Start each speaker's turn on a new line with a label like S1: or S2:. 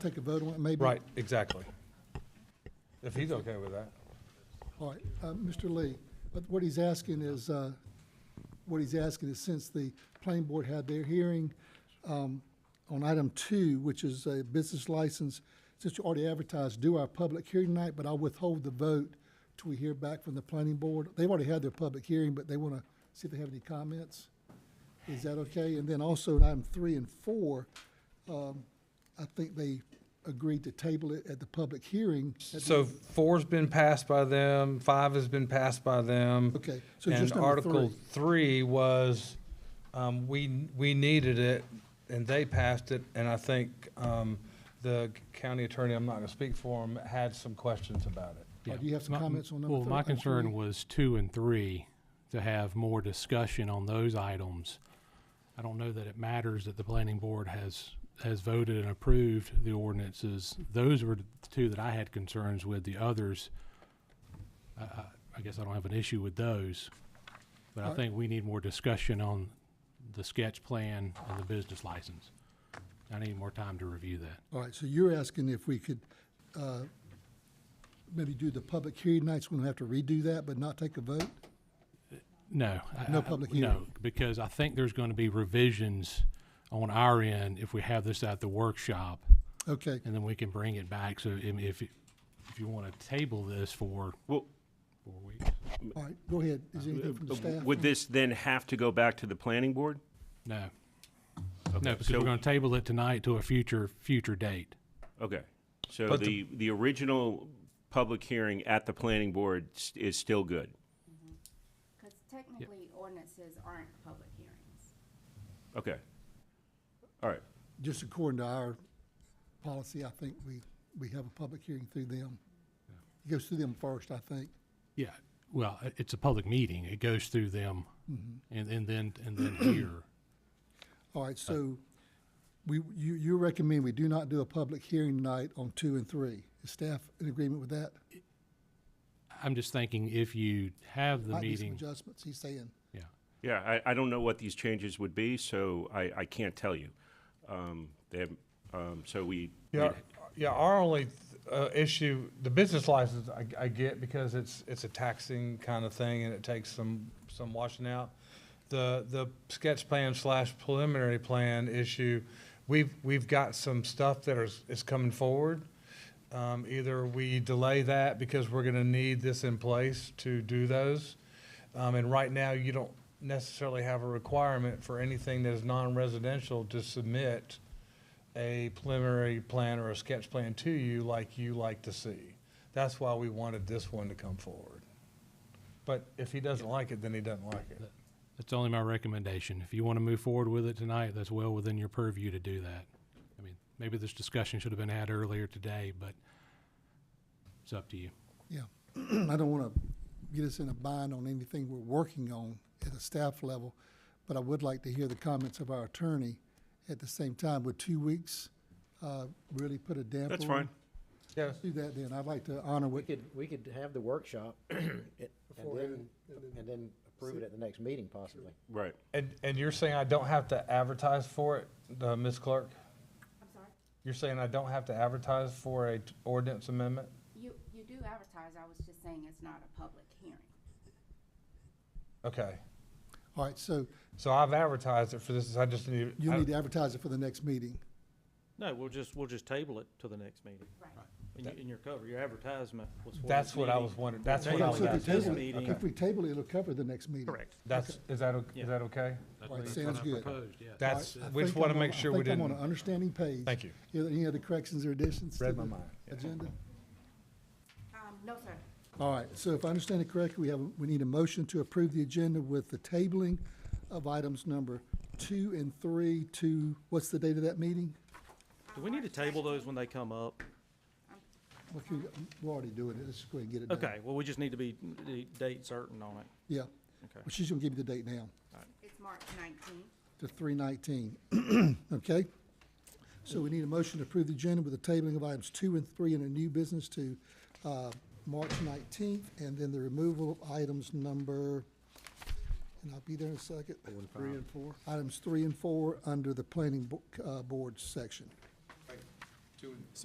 S1: take a vote on it, maybe?
S2: Right, exactly. If he's okay with that.
S1: All right, uh, Mr. Lee, but what he's asking is, uh, what he's asking is since the planning board had their hearing um, on item two, which is a business license, since you already advertised, do our public hearing tonight, but I'll withhold the vote till we hear back from the planning board. They've already had their public hearing, but they want to see if they have any comments. Is that okay? And then also in item three and four, um, I think they agreed to table it at the public hearing. at the-
S2: So four's been passed by them, five has been passed by them.
S1: Okay, so just
S2: And
S1: number
S2: Article
S1: three.
S2: three was, um, we, we needed it, and they passed it, and I think, um, the county attorney, I'm not gonna speak for him, had some questions about it.
S1: Or
S3: Yeah.
S1: Oh, do you have some
S3: My-
S1: comments on number
S3: Well,
S1: thir-
S3: my
S1: on three?
S3: concern was two and three, to have more discussion on those items. I don't know that it matters that the planning board has, has voted and approved the ordinances. Those were the two that I had concerns with. The others, I, I, I guess I don't have an issue with those. But I
S1: Alright.
S3: think we need more discussion on the sketch plan and the business license. I need more time to review that.
S1: All right, so you're asking if we could uh, maybe do the public hearing nights, we don't have to redo that, but not take a vote?
S3: No. I-
S1: No
S3: I-
S1: public
S3: No,
S1: hearing.
S3: because I think there's going to be revisions on our end if we have this at the workshop,
S1: Okay,
S3: and then we can bring it back. So if, if you- if you want to table this for
S4: Well, uh,
S3: four weeks,
S1: all right, go ahead. Is there anything from the staff?
S4: would this then have to go back to the planning board?
S3: no. No, because
S4: so-
S3: we're going to table it tonight to a future, future date.
S4: Okay. So
S2: But
S4: the, the original public hearing at the planning board s- is still good.
S5: Because technically ordinances aren't public hearings.
S4: Okay. All right.
S1: Just according to our policy, I think we, we have a public hearing through them. It goes through them first, I think.
S3: Yeah, well, i- it's a public meeting. It goes through them
S1: Mm-hmm.
S3: and, and then, and then here.
S1: All right, so we, you, you recommend we do not do a public hearing night on two and three. Is staff in agreement with that?
S3: I'm just thinking if you have the
S1: Might be some
S3: meeting,
S1: Adjustments, he's saying.
S3: yeah.
S4: Yeah, I, I don't know what these changes would be, so I, I can't tell you. Um, They have, um, so we,
S2: Yeah, yeah, our only, uh, issue, the business license, I, I get because it's, it's a taxing kind of thing and it takes some, some washing out. The, the sketch plan slash preliminary plan issue, we've, we've got some stuff that is, is coming forward. Um, either we delay that because we're gonna need this in place to do those. Um, and right now, you don't necessarily have a requirement for anything that is non-residential to submit a preliminary plan or a sketch plan to you like you like to see. That's why we wanted this one to come forward. But if he doesn't like it, then he doesn't like it.
S3: That's only my recommendation. If you want to move forward with it tonight, that's well within your purview to do that. I mean, maybe this discussion should have been had earlier today, but it's up to you.
S1: Yeah, I don't want to get us in a bind on anything we're working on at a staff level, but I would like to hear the comments of our attorney at the same time. Would two weeks uh, really put a damper on?
S4: that's fine.
S2: Yes.
S1: Do that then. I'd like to honor
S6: We
S1: what,
S6: could, we could have the workshop and then, and then approve it at the next meeting possibly.
S4: Right.
S2: And, and you're saying I don't have to advertise for it, uh, Ms. Clerk?
S5: I'm sorry?
S2: You're saying I don't have to advertise for a t- ordinance amendment?
S5: You, you do advertise, I was just saying it's not a public hearing.
S2: Okay.
S1: all right, so
S2: So I've advertised it for this, I just need.
S1: you
S2: I-
S1: need to advertise it for the next meeting.
S7: No, we'll just, we'll just table it to the next meeting.
S5: Right.
S7: In, your- in your cover, your advertisement was for this
S2: That's what I
S7: meeting.
S2: was wondering. That's
S7: Table
S2: what I
S7: it
S2: was
S1: So if we
S7: to this
S1: table it-
S7: meeting.
S1: If we table it, it'll cover the next meeting.
S2: That's, is that, o-
S7: Yeah.
S2: is that okay?
S1: All right, sounds good.
S3: yeah.
S1: All right,
S2: That's,
S1: I
S2: we just
S1: think
S2: want
S1: I'm
S2: to make
S1: on- I
S2: sure we
S1: think I'm
S2: didn't.
S1: on an understanding page.
S2: Thank you.
S1: Are there Any other corrections or additions to
S2: Read my
S1: the
S2: mind.
S1: agenda?
S5: Um, no, sir.
S1: All right, so if I understand it correctly, we have, we need a motion to approve the agenda with the tabling of items number two and three to, what's the date of that meeting?
S7: Do we need to table those when they come up?
S1: Okay, We're already doing it, let's just go ahead and get it done.
S7: Okay, well, we just need to be, the date certain on it.
S1: Yeah,
S7: Okay.
S1: Well, she's gonna give you the date now,
S5: It's March nineteenth.
S1: to three nineteen, okay? So we need a motion to approve the agenda with the tabling of items two and three in a new business to, uh, March nineteenth, and then the removal of items number, and I'll be there in a second.
S6: Three and four.
S1: items three and four under the planning bo- uh, board section.
S8: two and